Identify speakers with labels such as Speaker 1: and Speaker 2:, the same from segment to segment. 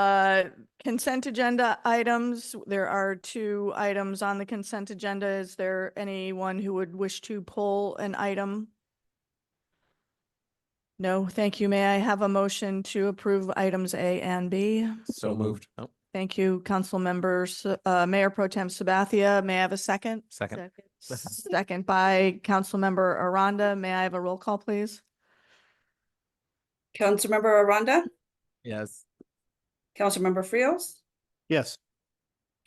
Speaker 1: Uh, Consent agenda items, there are two items on the consent agenda. Is there anyone who would wish to pull an item? No, thank you. May I have a motion to approve items A and B?
Speaker 2: So moved. Oh,
Speaker 1: Thank you, council members. Uh, Mayor Pro Tem Sabathia, may I have a second?
Speaker 2: second.
Speaker 1: Second by Councilmember Aranda. May I have a roll call, please?
Speaker 3: Councilmember Aranda,
Speaker 2: Yes.
Speaker 3: Councilmember Frios,
Speaker 4: Yes.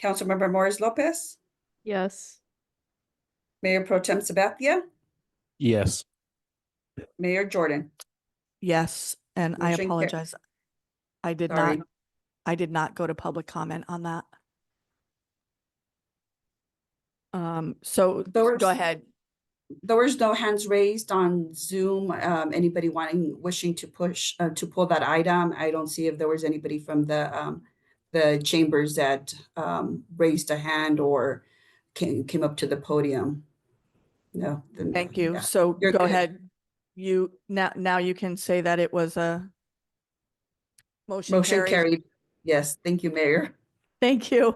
Speaker 3: Councilmember Morris Lopez,
Speaker 5: Yes.
Speaker 3: Mayor Pro Tem Sabathia,
Speaker 4: Yes.
Speaker 3: Mayor Jordan.
Speaker 1: Yes, and I
Speaker 3: Motion ca-
Speaker 1: apologize. I did not,
Speaker 3: Sorry.
Speaker 1: I did not go to public comment on that. Um, so
Speaker 3: There were
Speaker 1: go
Speaker 3: s-
Speaker 1: ahead.
Speaker 3: There was no hands raised on Zoom. Um, anybody wanting, wishing to push, uh, to pull that item? I don't see if there was anybody from the, um, the chambers that, um, raised a hand or came, came up to the podium. No. then-
Speaker 1: Thank you.
Speaker 3: yeah.
Speaker 1: So
Speaker 3: You're
Speaker 1: go
Speaker 3: good.
Speaker 1: ahead. You, now, now you can say that it was a motion
Speaker 3: Motion
Speaker 1: carries.
Speaker 3: carried. Yes, thank you, Mayor.
Speaker 1: Thank you.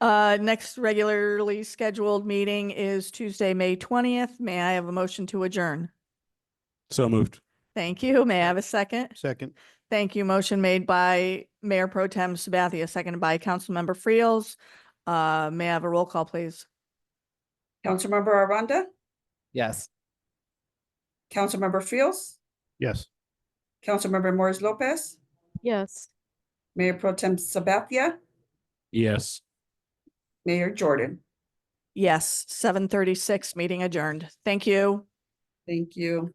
Speaker 1: Uh, next regularly scheduled meeting is Tuesday, May twentieth. May I have a motion to adjourn?
Speaker 4: So moved.
Speaker 1: Thank you. May I have a second?
Speaker 4: Second.
Speaker 1: Thank you. Motion made by Mayor Pro Tem Sabathia, seconded by Councilmember Friels. Uh, may I have a roll call, please?
Speaker 3: Councilmember Aranda,
Speaker 2: Yes.
Speaker 3: Councilmember Frios,
Speaker 4: Yes.
Speaker 3: Councilmember Morris Lopez,
Speaker 5: Yes.
Speaker 3: Mayor Pro Tem Sabathia,
Speaker 4: Yes.
Speaker 3: Mayor Jordan.
Speaker 1: Yes, seven thirty-six, meeting adjourned. Thank you.
Speaker 3: Thank you.